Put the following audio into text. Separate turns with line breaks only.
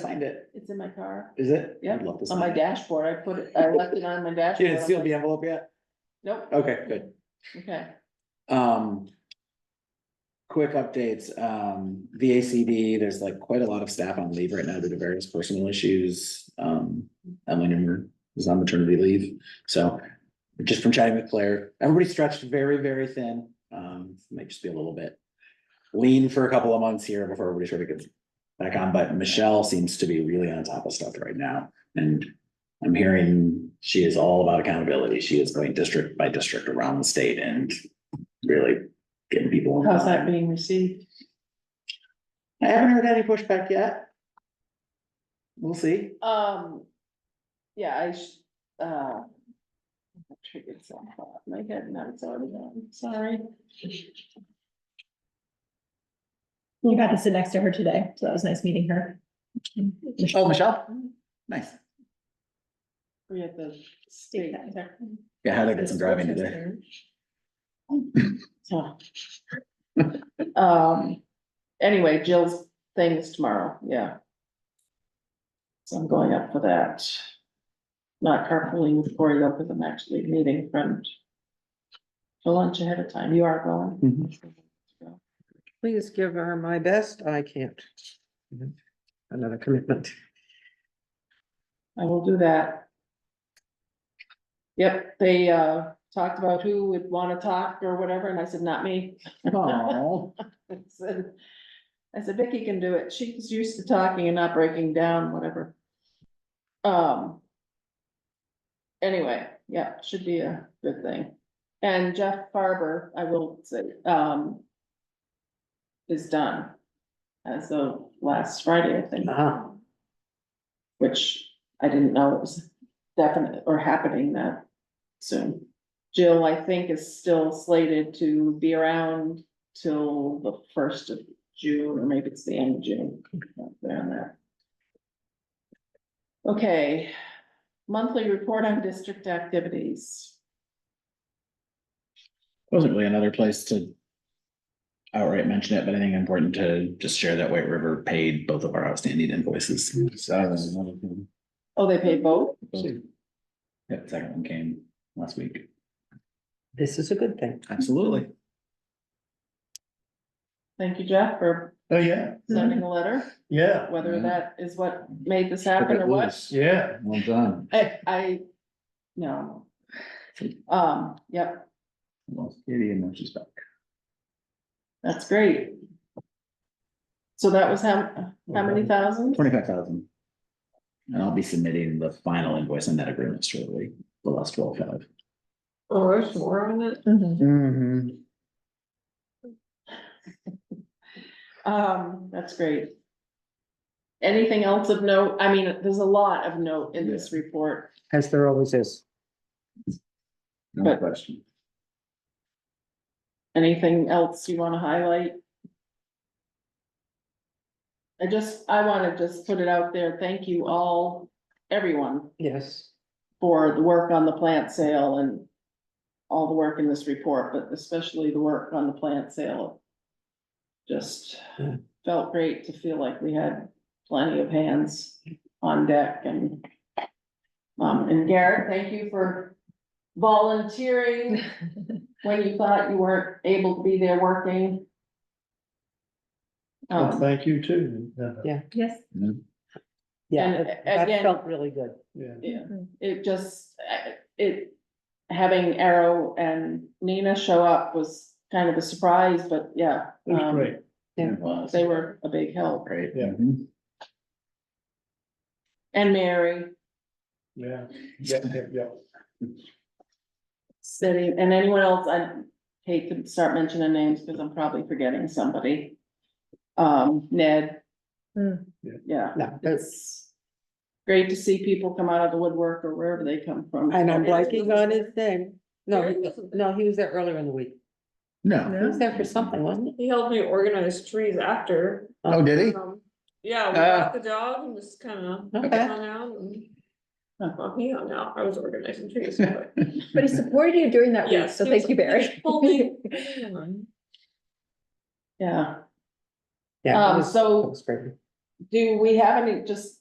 find it,
It's in my car,
is it?
Yeah,
I'd love to
on
sign
my
it.
dashboard, I put it, I left it on my
You
dashboard.
didn't seal the envelope yet?
Nope,
Okay, good.
okay.
Um. Quick updates, um, VACD, there's like quite a lot of staff on leave right now due to various personal issues. Um, Emily Newman is on maternity leave, so just from chatting with Claire, everybody stretched very, very thin. Um, might just be a little bit lean for a couple of months here before everybody sort of gets back on, but Michelle seems to be really on top of stuff right now. And I'm hearing she is all about accountability. She is going district by district around the state and really getting people.
How's
involved.
that being received?
I haven't heard any pushback yet. We'll see.
Um, yeah, I, sh- uh. I Triggered something off my head, now it's already gone, sorry.
You got to sit next to her today, so that was nice meeting her.
Oh, Michelle? Nice.
We had the state.
Heather
Yeah, Heather did some driving today.
so. Um, anyway, Jill's thing is tomorrow, yeah. So I'm going up for that. Not carpooling with Cory though, because I'm actually meeting friend. For lunch ahead of time, you are
Mm-hmm.
going?
Please give her my best. I can't. Another commitment.
I will do that. Yep, they uh talked about who would wanna talk or whatever, and I said, not me.
Oh,
I said, I said, Vicky can do it. She's used to talking and not breaking down, whatever. Um. Anyway, yeah, should be a good thing. And Jeff Farber, I will say, um. Is done. As of last Friday, I think,
Uh-huh.
which I didn't know it was definite or happening that soon. Jill, I think, is still slated to be around till the first of June, or maybe it's the end of June. There and there. Okay, monthly report on district activities.
Wasn't really another place to outright mention it, but I think important to just share that White River paid both of our outstanding invoices.
Mm-hmm.
So that was another thing.
Oh, they pay both?
Yep, second one came last week.
This is a good thing.
Absolutely.
Thank you, Jeff, for
Oh, yeah,
Mm-hmm.
sending a letter,
yeah,
whether
Yeah.
that is what made this happen or what.
yeah.
Well done.
I, I, no. Um, yep,
Well, Katie, and now she's back.
That's great. So that was how, how many thousand?
Twenty-five thousand. And I'll be submitting the final invoice on that agreement shortly, the last twelve-five.
Oh, there's more on it?
Mm-hmm.
Um, that's great. Anything else of note? I mean, there's a lot of note in this report.
As there always is.
No
But-
question.
Anything else you wanna highlight? I just, I wanna just put it out there. Thank you all, everyone,
Yes.
for the work on the plant sale and all the work in this report, but especially the work on the plant sale. Just
Yeah.
felt great to feel like we had plenty of hands on deck and um, and Garrett, thank you for volunteering when you thought you weren't able to be there working.
Well,
Um,
thank you too. Uh,
Yes.
Yeah,
And
that- that
again-
felt really good.
Yeah,
Yeah, it just, uh, it, having Arrow and Nina show up was kind of a surprise, but yeah.
it was
um,
great.
Yeah.
It was.
They were a big help,
Great.
Yeah.
Mhm.
and Mary,
Yeah, yeah, yeah, yeah.
City, and anyone else, I hate to start mentioning names, because I'm probably forgetting somebody. Um, Ned.
Hmm.
Yeah.
Yeah,
No, that's,
it's great to see people come out of the woodwork or wherever they come from.
and I'm blanking on his name. No, he was- no, he was there earlier in the week.
No.
He was there for something, wasn't he?
He helped me organize trees after.
Oh, did he?
Um, Yeah, we got the dog and just kinda
Okay.
hung out and.
Huh.
Well, he hung out, I was organizing trees, but.
But he supported you during that week,
Yes,
so
he
thank
was-
you, Barry.
he pulled me-
Yeah,
Yeah. it
Um,
was-
so-
Um, it was great.
do Um, we have any, just